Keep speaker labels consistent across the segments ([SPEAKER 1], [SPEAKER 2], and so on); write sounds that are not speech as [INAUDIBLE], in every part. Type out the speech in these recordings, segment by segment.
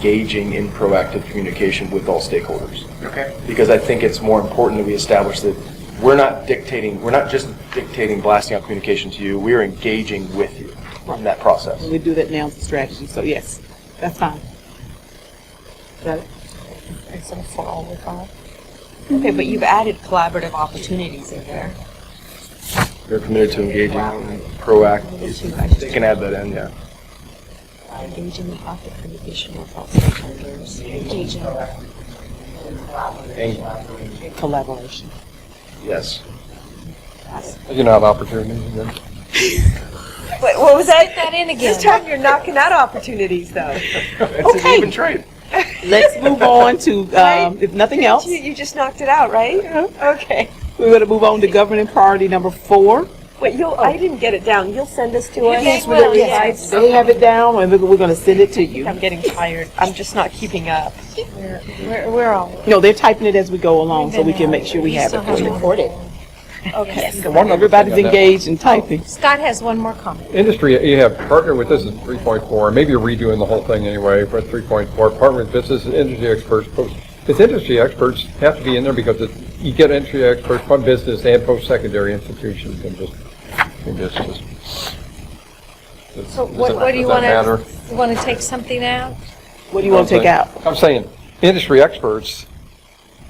[SPEAKER 1] engaging in proactive communication with all stakeholders.
[SPEAKER 2] Okay.
[SPEAKER 1] Because I think it's more important that we establish that we're not dictating, we're not just dictating blasting out communication to you, we are engaging with you in that process.
[SPEAKER 2] We do that now as a strategy, so yes, that's fine. Got it?
[SPEAKER 3] Instead of for
[SPEAKER 2] oh
[SPEAKER 3] all we call it. Okay, but you've added collaborative opportunities in there.
[SPEAKER 1] We're committed to engaging in proactive,
[SPEAKER 3] Two, I just-
[SPEAKER 1] you can add that in, yeah.
[SPEAKER 3] Engage in the profit communication with all stakeholders. Engage in.
[SPEAKER 1] And-
[SPEAKER 2] Collaboration.
[SPEAKER 1] Yes. You know, have opportunities again.
[SPEAKER 3] Wait, what was that? that in again.
[SPEAKER 4] This time you're knocking out opportunities, though.
[SPEAKER 1] [LAUGHS] It's an
[SPEAKER 2] Okay.
[SPEAKER 1] even trade.
[SPEAKER 2] Let's [LAUGHS] move on to, um, if nothing else,
[SPEAKER 4] You, you just knocked it out, right? Okay.
[SPEAKER 2] we're going to move on to governing priority number four.
[SPEAKER 4] Wait, you'll, I didn't get it down. You'll send this to us?
[SPEAKER 3] guys will,
[SPEAKER 4] Really?
[SPEAKER 3] yes.
[SPEAKER 4] I-
[SPEAKER 2] They have it down, and we're- we're going to send it to you.
[SPEAKER 4] I'm getting tired. I'm just not keeping up.
[SPEAKER 3] We're, we're all.
[SPEAKER 2] No, they're typing it as we go along, so we can make sure we have it for you.
[SPEAKER 3] recorded.
[SPEAKER 2] Everybody's engaged in typing.
[SPEAKER 3] Scott has one more comment.
[SPEAKER 5] Industry, you have partner with, this is 3.4, maybe you're redoing the whole thing anyway, but 3.4, partner with business and industry experts. post- Because industry experts have to be in there because it- you get industry experts from business and post-secondary institutions and just, and just, just.
[SPEAKER 3] So what, what do you want to, you want to take something out?
[SPEAKER 2] What do you want to take out?
[SPEAKER 5] I'm saying, industry experts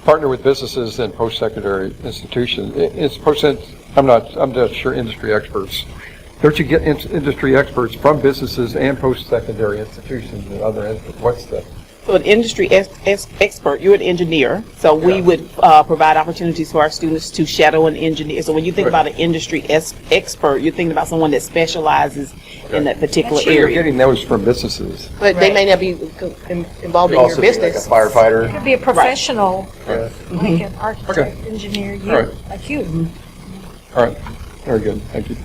[SPEAKER 5] partner with businesses and post-secondary institutions. I- It's post, I'm not, I'm not sure industry experts. Don't you get in- industry experts from businesses and post-secondary institutions and other, ins- what's the?
[SPEAKER 2] So an industry ex- ex- expert, you're an engineer, so we would uh, provide opportunities for our students to shadow an engineer. So when you think about an industry es- expert, you're thinking about someone that specializes in that particular
[SPEAKER 5] You're
[SPEAKER 2] area.
[SPEAKER 5] getting those from businesses.
[SPEAKER 6] But they may not be co- in- involved in your
[SPEAKER 1] Also be like a
[SPEAKER 6] business.
[SPEAKER 1] firefighter.
[SPEAKER 3] Be a professional, like an architect, engineer, you,
[SPEAKER 5] All
[SPEAKER 3] like you.
[SPEAKER 5] All right, very good, thank you.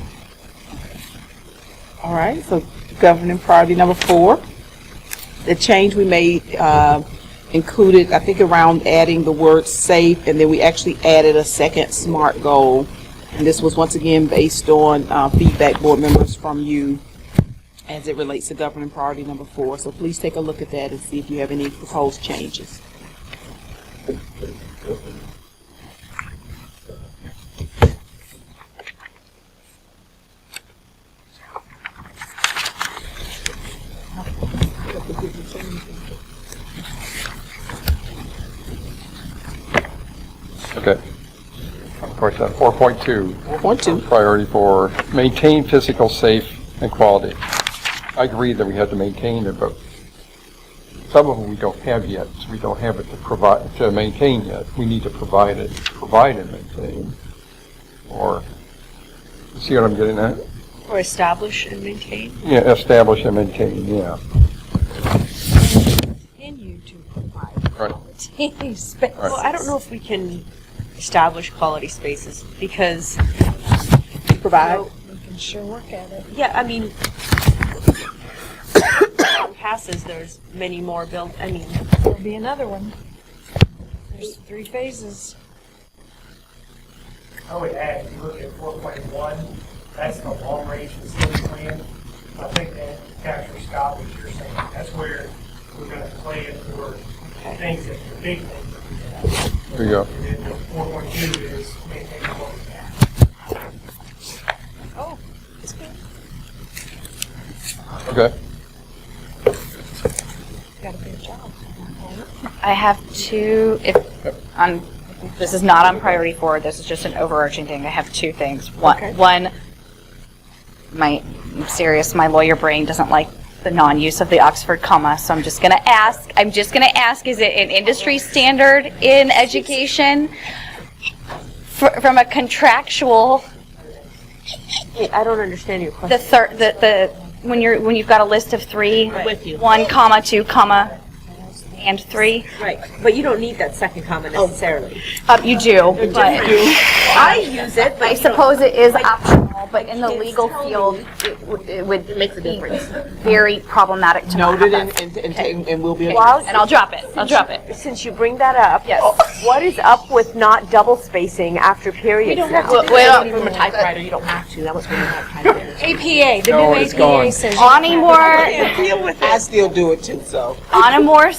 [SPEAKER 2] All right, so governing priority number four. The change we made uh, included, I think, around adding the word safe, and then we actually added a second SMART goal. And this was once again based on uh, feedback, board members, from you as it relates to governing priority number four. So please take a look at that and see if you have any proposed changes.
[SPEAKER 5] Okay. uh, What's that, 4.2?
[SPEAKER 2] Point two.
[SPEAKER 5] priority for maintain physical safe and quality. I agree that we have to maintain it, but some of them we don't have yet, so we don't have it to provide, to maintain yet. We need to provide it, provide and maintain. Or, see what I'm getting at?
[SPEAKER 4] Or establish and maintain.
[SPEAKER 5] Yeah, establish and maintain, yeah.
[SPEAKER 3] Continue to
[SPEAKER 5] Right.
[SPEAKER 3] [LAUGHS] provide space.
[SPEAKER 5] Right.
[SPEAKER 4] Well, I don't know if we can establish quality spaces because,
[SPEAKER 2] Provide.
[SPEAKER 3] We can sure work at it.
[SPEAKER 4] yeah, I mean, [COUGHS] on passes, there's many more built, I mean,
[SPEAKER 3] There'll be another one. There's three phases.
[SPEAKER 7] I would add, if you look at four point one, that's the long-range facility plan. I think that captures, Scott, what you're saying. That's where we're gonna plan for things that are big things. that we have.
[SPEAKER 5] There you go.
[SPEAKER 7] And then the four point two is maintain what we have.
[SPEAKER 3] Oh, it's good.
[SPEAKER 5] Okay.
[SPEAKER 3] Gotta be a job.
[SPEAKER 8] I have two, if, on, this is not on priority four, this is just an overarching thing. I have two things. One, one, my, I'm serious, my lawyer brain doesn't like the non-use of the Oxford comma, so I'm just going to ask, I'm just going to ask, is it an industry standard in education? Fr- From a contractual
[SPEAKER 4] I don't understand your question.
[SPEAKER 8] the third, the, the, when you're, when you've got a list of three, one comma, two comma, and three,
[SPEAKER 4] Right, but you don't need that second comma necessarily.
[SPEAKER 8] Uh, you do, but
[SPEAKER 4] I use it, but
[SPEAKER 8] I suppose it is optional, but in the legal field, it w- it would. It makes a difference. Very problematic to not have
[SPEAKER 2] Noted
[SPEAKER 8] that.
[SPEAKER 2] and, and, and taken- and will be.
[SPEAKER 8] And I'll drop it, I'll drop it.
[SPEAKER 4] Since you bring that up,
[SPEAKER 8] Yes.
[SPEAKER 4] what is up with not double spacing after periods now?
[SPEAKER 8] Well, well,
[SPEAKER 3] From a typewriter, you don't have to, that was really not typewriter.
[SPEAKER 9] APA, the
[SPEAKER 5] No,
[SPEAKER 9] new
[SPEAKER 5] it's gone.
[SPEAKER 9] APA says. you
[SPEAKER 8] On a more,
[SPEAKER 2] I still do it too, so.
[SPEAKER 8] on a more